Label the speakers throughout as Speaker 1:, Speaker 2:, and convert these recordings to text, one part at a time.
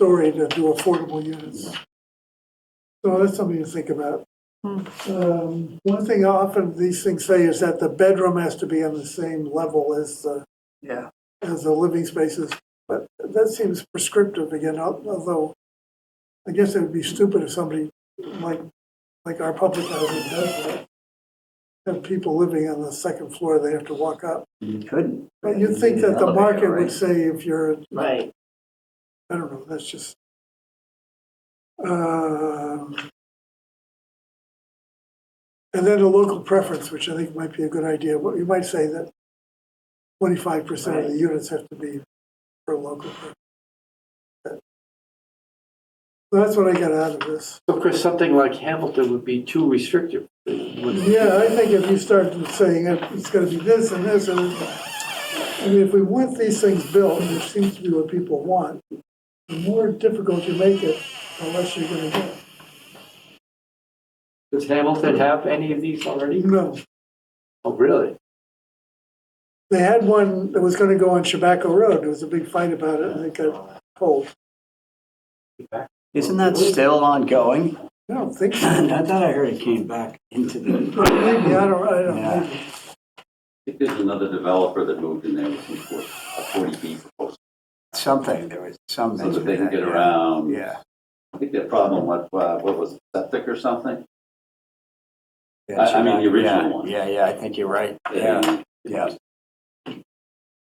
Speaker 1: story uh, to do affordable units. So that's something to think about. Um, One thing often these things say is that the bedroom has to be on the same level as the,
Speaker 2: Yeah,
Speaker 1: as the living spaces. But that seems prescriptive again, al- although I guess it would be stupid if somebody like, like our public housing does that. Have people living on the second floor, they have to walk up.
Speaker 2: you couldn't.
Speaker 1: But you'd think that the
Speaker 2: Elevator,
Speaker 1: market would
Speaker 2: right?
Speaker 1: say if you're
Speaker 2: Right,
Speaker 1: I don't know, that's just. Um, And then a local preference, which I think might be a good idea, What you might say that twenty-five percent of the units have to be for local. preference. So That's what I got out of this.
Speaker 3: Of course, something like Hamilton would be too restrictive. It would-
Speaker 1: Yeah, I think if you start saying it- it's gonna be this and this, and, I mean, if we want these things built, which seems to be what people want, the more difficult you make it, the less you're gonna get.
Speaker 3: Does Hamilton have any of these already?
Speaker 1: No,
Speaker 3: Oh, really?
Speaker 1: they had one that was gonna go on Chabaco Road, there was a big fight about it, and it got pulled.
Speaker 2: isn't that still ongoing?
Speaker 1: I don't think, so.
Speaker 2: I thought I heard it came back into the,
Speaker 1: maybe, I don't, I don't,
Speaker 2: Yeah.
Speaker 1: maybe.
Speaker 4: I think there's another developer that moved in there with some sort of 40B proposal,
Speaker 2: something, there was some.
Speaker 4: so
Speaker 2: mention
Speaker 4: that they
Speaker 2: of
Speaker 4: can
Speaker 2: that,
Speaker 4: get
Speaker 2: yeah.
Speaker 4: around.
Speaker 2: Yeah,
Speaker 4: I think their problem was, uh, what was it, septic or something?
Speaker 2: yeah.
Speaker 4: I- I mean,
Speaker 2: sure.
Speaker 4: the
Speaker 2: Yeah,
Speaker 4: original one.
Speaker 2: Yeah, yeah, I think you're right, yeah,
Speaker 4: And-
Speaker 2: yeah.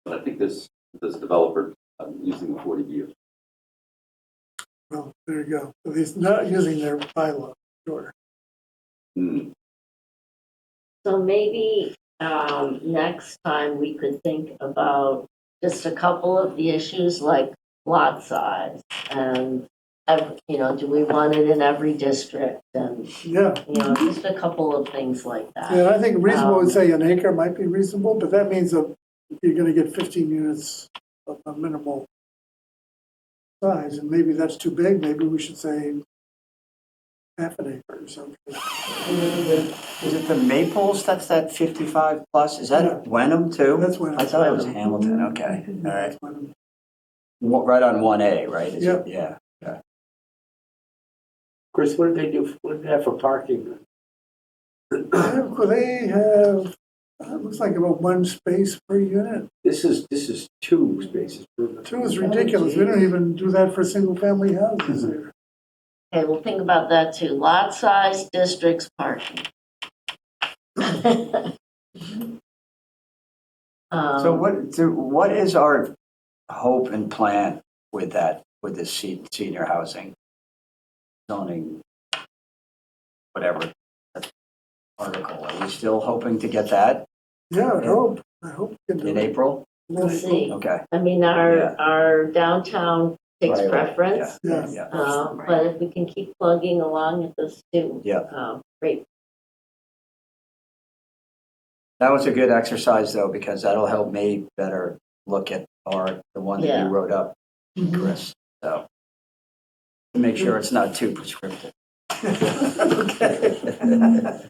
Speaker 4: But I think this, this developer um, using the 40B.
Speaker 1: well, there you go, at least not using their bylaw, sure.
Speaker 4: Hmm.
Speaker 5: So maybe um, next time we could think about just a couple of the issues like lot size and, ev- you know, do we want it in every district? And,
Speaker 1: Yeah,
Speaker 5: you know, just a couple of things like that.
Speaker 1: yeah, I think reasonable would say an acre might be reasonable, but that means that you're gonna get fifteen units of a minimal size, and maybe that's too big, maybe we should say half an acre or something.
Speaker 2: Is it the Maples, that's that 55 plus, is
Speaker 1: Yeah.
Speaker 2: that Wenham too?
Speaker 1: That's Wenham.
Speaker 2: I thought it was Hamilton, okay, all right.
Speaker 1: That's what I'm-
Speaker 2: Wa- Right on 1A, right? Is
Speaker 1: Yeah.
Speaker 2: it? Yeah.
Speaker 3: Of course, what did they do, what did they have for parking?
Speaker 1: Well, They have, uh, it looks like about one space per unit.
Speaker 3: This is, this is two spaces. per-
Speaker 1: Two is ridiculous. We don't even do that for single-family houses here.
Speaker 5: Okay, we'll think about that too. Lot size, districts, parking.
Speaker 2: So
Speaker 5: Um,
Speaker 2: what, so what is our hope and plan with that, with this se- senior housing zoning, whatever article? Are we still hoping to get that
Speaker 1: Yeah, I hope, I hope. we can do
Speaker 2: in
Speaker 1: it.
Speaker 2: April?
Speaker 5: We'll see.
Speaker 2: Okay.
Speaker 5: I mean,
Speaker 2: Yeah.
Speaker 5: our, our downtown takes
Speaker 2: Right, right,
Speaker 5: preference.
Speaker 2: Yeah,
Speaker 1: Yes.
Speaker 2: yeah.
Speaker 5: Um, But if we can keep plugging along at this too.
Speaker 2: Yeah.
Speaker 5: um, Great.
Speaker 2: That was a good exercise though, because that'll help me better look at our, the one that
Speaker 5: Yeah.
Speaker 2: you wrote up, Chris, so. to Make sure it's not too prescriptive. Okay.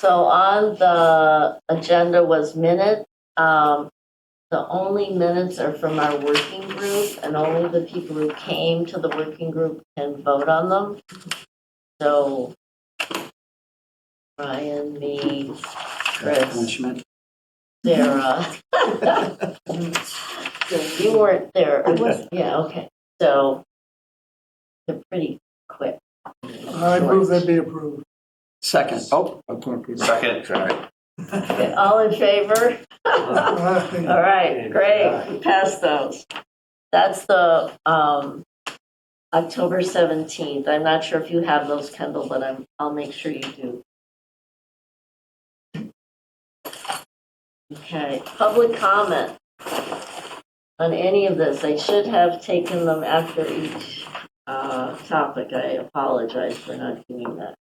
Speaker 5: So on the agenda was minute. Um, The only minutes are from our working group and only the people who came to the working group can vote on them. So Ryan, me, Chris,
Speaker 2: Punishment.
Speaker 5: Sarah. You weren't there.
Speaker 2: I wasn't.
Speaker 5: Yeah, okay. So they're pretty quick.
Speaker 1: I move that be approved.
Speaker 2: Second, oh. Second, sorry.
Speaker 5: Okay, All in favor?
Speaker 1: All
Speaker 5: All
Speaker 1: right.
Speaker 5: right, great, we passed those. That's the um, October 17th. I'm not sure if you have those, Kendall, but I'm, I'll make sure you do. Okay, public comment on any of this. I should have taken them after each uh, topic. I apologize for not doing that.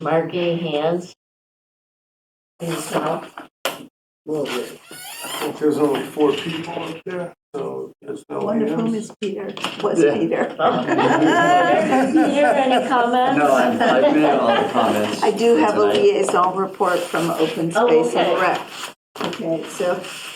Speaker 5: Marking hands. Please help.
Speaker 1: There's only four people up there, so there's no
Speaker 6: One of whom is Peter, was
Speaker 3: Yeah.
Speaker 6: Peter.
Speaker 5: Uh, Peter, any comments?
Speaker 2: No, I've I've made all the comments.
Speaker 6: I do have a
Speaker 2: tonight.
Speaker 6: liaison report from Open
Speaker 5: Oh,
Speaker 6: Space and
Speaker 5: okay.
Speaker 6: Rec. Okay, so